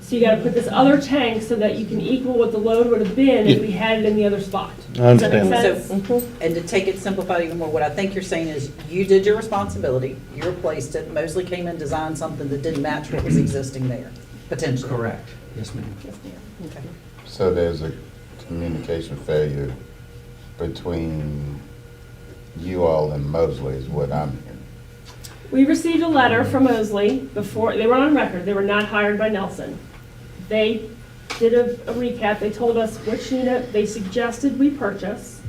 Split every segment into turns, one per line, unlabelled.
So you gotta put this other tank so that you can equal what the load would have been if we had it in the other spot.
I understand that.
Does
So,
that make sense?
Mm-hmm.
and to take it simplified even more, what I think you're saying is, you did your responsibility, you replaced it, Mosley came and designed something that didn't match what was existing there, potentially.
Correct, yes, ma'am.
Okay.
So there's a communication failure between you all and Mosley is what I'm hearing.
We received a letter from Mosley before, they were on record, they were not hired by Nelson. They did a a recap, they told us which unit they suggested we purchase,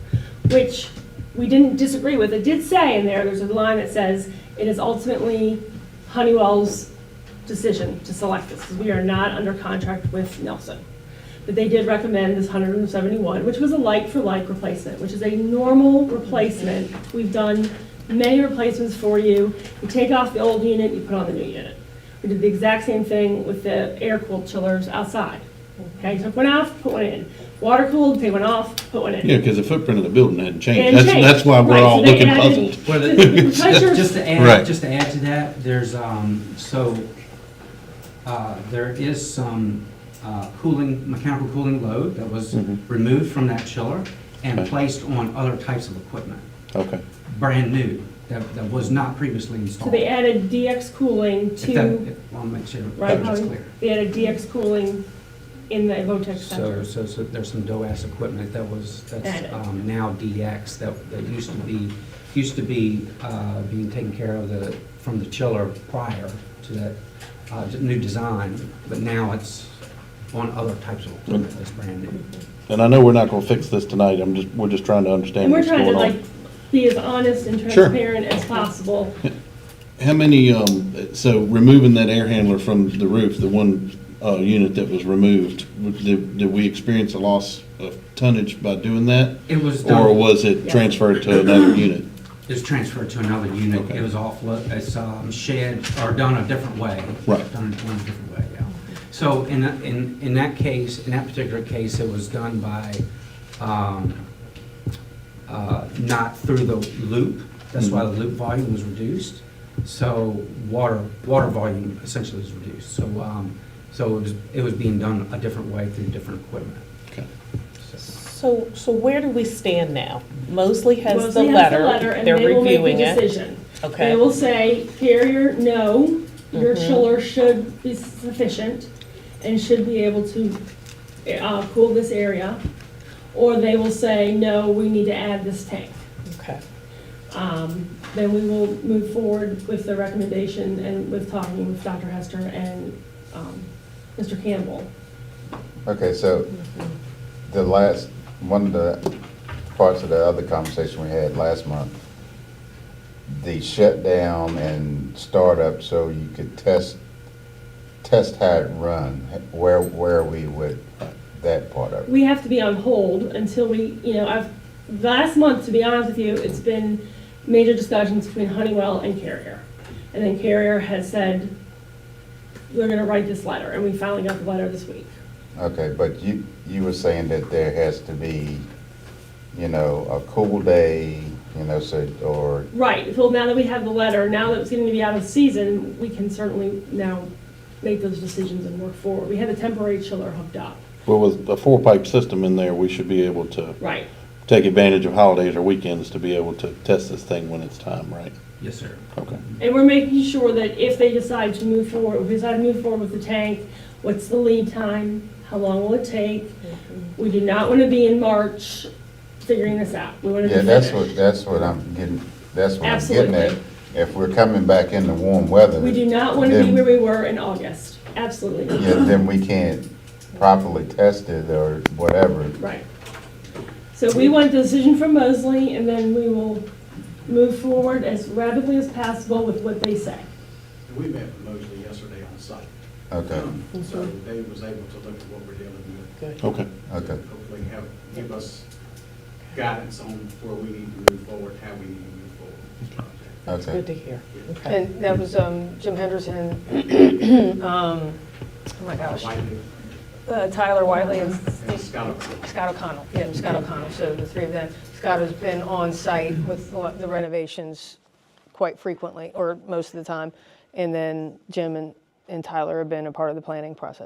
which we didn't disagree with. It did say in there, there's a line that says, it is ultimately Honeywell's decision to select this, because we are not under contract with Nelson. But they did recommend this 171, which was a like-for-like replacement, which is a normal replacement. We've done many replacements for you. You take off the old unit, you put on the new unit. We did the exact same thing with the air-cooled chillers outside. Okay, took one off, put one in. Water-cooled, take one off, put one in.
Yeah, because the footprint of the building hadn't
And
changed. That's,
change.
that's why we're
Right, so
all
they
looking
added-
puzzled.
Well,
The-
the-
the pressure-
Just to
Right.
add, just to add to that, there's, um, so, uh, there is some, uh, cooling, mechanical cooling load that was
Mhm.
removed from that chiller and
Okay.
placed on other types of equipment,
Okay.
brand new, that, that was not previously
So
installed.
they added DX cooling
If that,
to,
if- I'll make sure
right,
that's
Howie?
clear.
they added DX cooling in the Votech Center.
So, so, so there's some DOAS equipment that was,
Added.
that's um, now DX, that, that used to be, used to be uh, being taken care of the, from the chiller prior to that uh, d- new design, but now it's on other types of equipment that's brand new.
And I know we're not gonna fix this tonight. I'm just, we're just trying to understand
And we're
what's
trying
going
to
on.
like be as honest and
Sure.
transparent as possible.
How many, um, so removing that air handler from the roof, the one, uh, unit that was removed, w- did, did we experience a loss of tonnage by doing that?
It was done.
Or was it
Yeah.
transferred to another unit?
It was transferred to another unit.
Okay.
It was offload, it's um, shed, or done a different way.
Right.
Done done a different way, yeah. So in, that- in, in that case, in that particular case, it was done by, um, uh, not through the loop. That's why the
Mm-hmm.
loop volume was reduced. So water, water volume essentially was reduced. So, um, so it was, it was being done a different way through different equipment.
Okay.
So-
So, so where do we stand now? Mosley has the
Mosley
letter,
and
they're
they will make
reviewing
the
it.
decision. They
Okay,
will say, carrier, no, your
Mhm.
chiller should be sufficient and should be able to uh, cool this area. Or they will say, no, we need to add this tank.
okay.
Um, Then we will move forward with the recommendation and with talking with Dr. Hester and um, Mr. Campbell.
Okay, so the last, one of the parts of the other conversation we had last month, the shutdown and startup, so you could test, test how it run, where, where are we with that part of it?
we have to be on hold until we, you know, I've, last month, to be honest with you, it's been major discussions between Honeywell and Carrier. And then Carrier has said, we're gonna write this letter, and we finally got the letter this week.
Okay, but you, you were saying that there has to be, you know, a cool day, you know, so, or
Right, well, now that we have the letter, now that it's getting to be out of season, we can certainly now make those decisions and work forward. We had a temporary chiller hooked up,
Well, with a four-pipe system in there, we should be able to
right.
take advantage of holidays or weekends to be able to test this thing when it's time, right?
Yes, sir.
Okay.
And we're making sure that if they decide to move forward, if we decide to move forward with the tank, what's the lead time? How long will it take? We do not want to be in March figuring this out. We want to
Yeah,
be
that's
finished.
what, that's what I'm getting, that's what I'm getting at.
Absolutely.
If we're coming back in the warm weather.
We do not want to be
then-
where we were in August. Absolutely.
Yeah, then we can't properly test it or whatever.
Right. So we want a decision from Mosley and then we will move forward as rapidly as possible with what they say.
And we met with Mosley yesterday on site. Um,
Okay,
So they was able to look at what we're dealing with.
Good.
Okay.
okay.
and Hopefully have, give us guidance on where we need to move forward, how we need to move forward. with this project.
That's
Okay.
good to hear. Okay.
And that was um, Jim Henderson, um, oh my gosh,
Wiley
uh, Tyler Wiley and
And
Steve-
Scott,
Scott O'Connell. Yeah, Scott O'Connell, so the three of them. Scott has been on site with a lot- the renovations quite frequently, or most of the time. And then Jim and and Tyler have been a part of the planning process.